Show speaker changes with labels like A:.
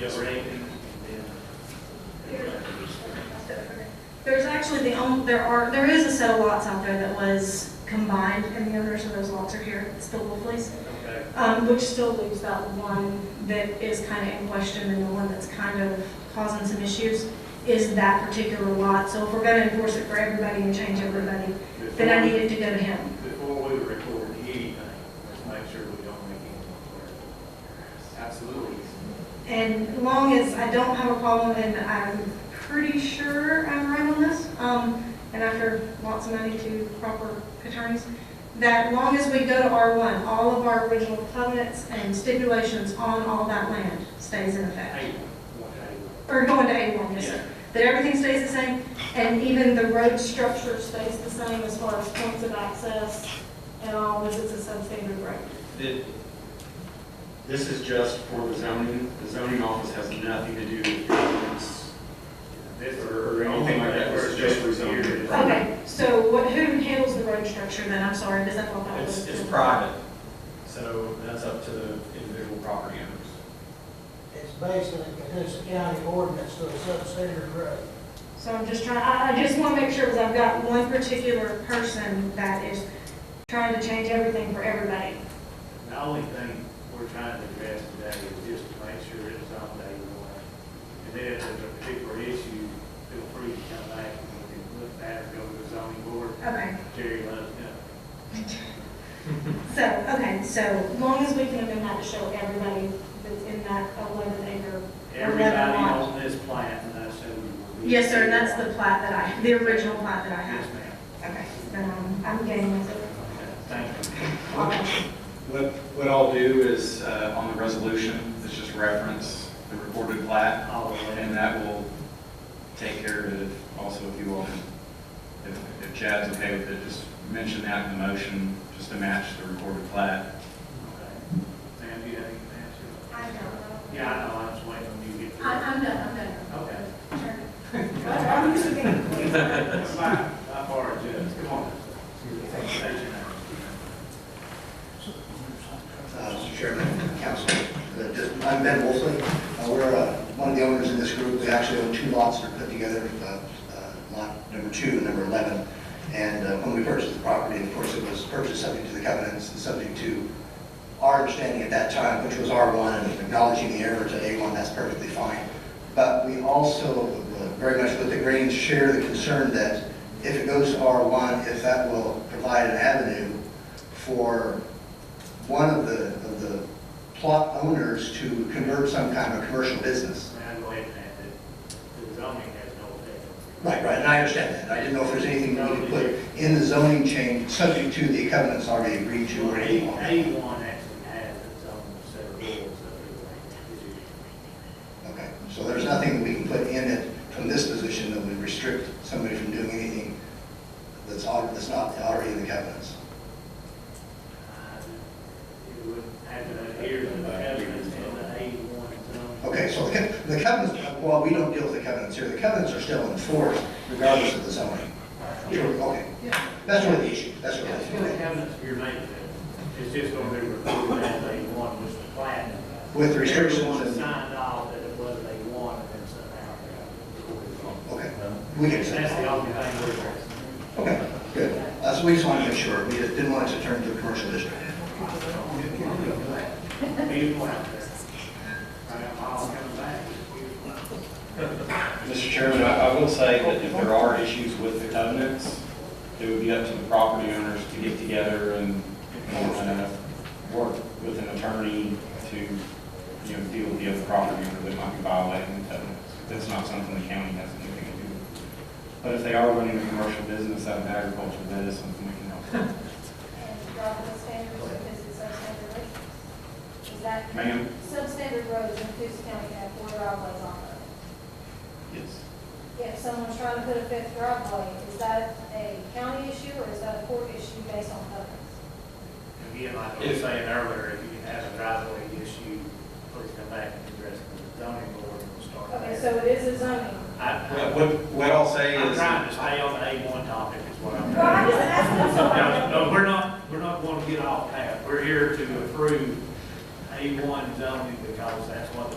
A: Yes, sir.
B: There's actually the only, there are, there is a set of lots out there that was combined, and the owners of those lots are here, it's the Wolfleys,
A: Okay.
B: um, which still leaves that one that is kind of in question, and the one that's kind of causing some issues is that particular lot. So if we're gonna enforce it for everybody and change everybody, then I need it to go to him.
A: Before we record anything, let's make sure we don't make any. Absolutely.
B: And long as I don't have a problem, and I'm pretty sure I'm right on this, um, and after lots of money to proper attorneys, that long as we go to R1, all of our original covenants and stipulations on all that land stays in effect.
A: Hey, what, hey,
B: Or going to A1, yes,
A: Yeah.
B: sir. That everything stays the same, and even the road structure stays the same as far as points of access and all, as it's a substandard road.
C: Th- This is just for the zoning, the zoning office has nothing to do with governance
A: this
C: or or anything like that, this is just for zoning.
B: Okay, so what, who handles the road structure then? I'm sorry, does that fall back?
D: It's, it's private, so that's up to the individual property owners.
E: It's based on the Cahusa County ordinance to a substandard road.
B: So I'm just trying, I, I just want to make sure, because I've got one particular person that is trying to change everything for everybody.
A: The only thing we're trying to address today is just to make sure it's on day one. And then if there's a particular issue, feel free to come back and we can look at it, go to the zoning board,
B: Okay,
A: Jerry let us know.
B: so, okay, so long as we can amend that to show everybody that's in that eleven acre.
A: Everybody
B: 11 lot.
A: on this plant, and I assume. you will be-
B: Yes, sir, and that's the plat that I, the original plat that I
A: Yes,
B: have.
A: ma'am.
B: Okay, then I'm, I'm getting myself.
A: Okay, Thank you.
B: Okay.
C: What, what I'll do is, uh, on the resolution, is just reference the recorded plat,
A: All the way.
C: and that will take care of it also if you all, if if Chad's okay with it, just mention that in the motion, just to match the recorded plat.
A: Okay. Ma'am, do you have any answer?
B: I know.
A: Yeah, I know, I was waiting on you to get
B: I,
A: through.
B: I'm done, I'm done.
A: Okay.
B: Sure. I'm used to being quick.
A: That's fine, I borrowed yours, come on. State your name.
F: Uh, Mr. Chairman, Council, uh, just- I'm Ben Wolfley. Uh, We're uh, one of the owners in this group. We actually own two lots that are put together, uh, uh, lot number two and number 11. And uh, when we purchased the property, of course, it was purchased subject to the covenants and subject to our understanding at that time, which was R1, and acknowledging the error to A1, that's perfectly fine. But we also uh, very much with the Greens share the concern that if it goes to R1, if that will provide an avenue for one of the, of the plot owners to convert some kind of commercial business.
A: May I go ahead and add that the zoning has no effect.
F: Right, right, and I understand that. I didn't know if there's anything we could put in the zoning change, subject to the covenants already agreed to or anything.
A: A one actually has its own set of rules that we
F: Okay, so there's nothing that we can put in it from this position that would restrict somebody from doing anything that's al, that's not already in the covenants.
A: It would have to adhere to the covenants in the A one zone.
F: Okay, so the co- the covenants, well, we don't deal with the covenants here. The covenants are still enforced regardless of the zoning. Okay, that's where the issue, that's where
A: Yeah,
F: the
A: it's
F: issue.
A: gonna have an severe maintenance. It's just gonna be recorded as A one, which is planned.
F: With restrictions and-
A: Everyone signed off that it was A one, and then somehow they got recorded wrong.
F: Okay, we get it.
A: That's the only thing we're addressing.
F: Okay, good. That's what we just wanted to make sure. We just didn't want it to turn into a commercial district.
A: Here's one out there. Right, I'm all coming back.
C: Mr. Chairman, I, I will say that if there are issues with the covenants, it would be up to the property owners to get together and, uh, work with an attorney to, you know, deal with the other property owner that might be violating the covenants. That's not something the county has anything to do with. But if they are running a commercial business out of agriculture, that is something we can help. with.
G: and Robin's standards includes substandard roads. Is that
C: Ma'am?
G: substandard roads in Coosa County have four driveways on them?
C: Yes.
G: If someone's trying to put a fifth driveway, is that a county issue or is that a court issue based on covenants?
A: Again, like I was saying earlier, if you have a driveway issue, please come back and address it with the zoning board and we'll start
G: Okay,
A: there.
G: so it is a zoning.
A: I,
C: What, what- what I'll say
A: I'm
C: is,
A: trying to stay on the A one topic is what I'm.
G: Well, I'm just asking
A: No, no, we're not, we're not going to get off path. We're here to approve A1 zoning because that's what the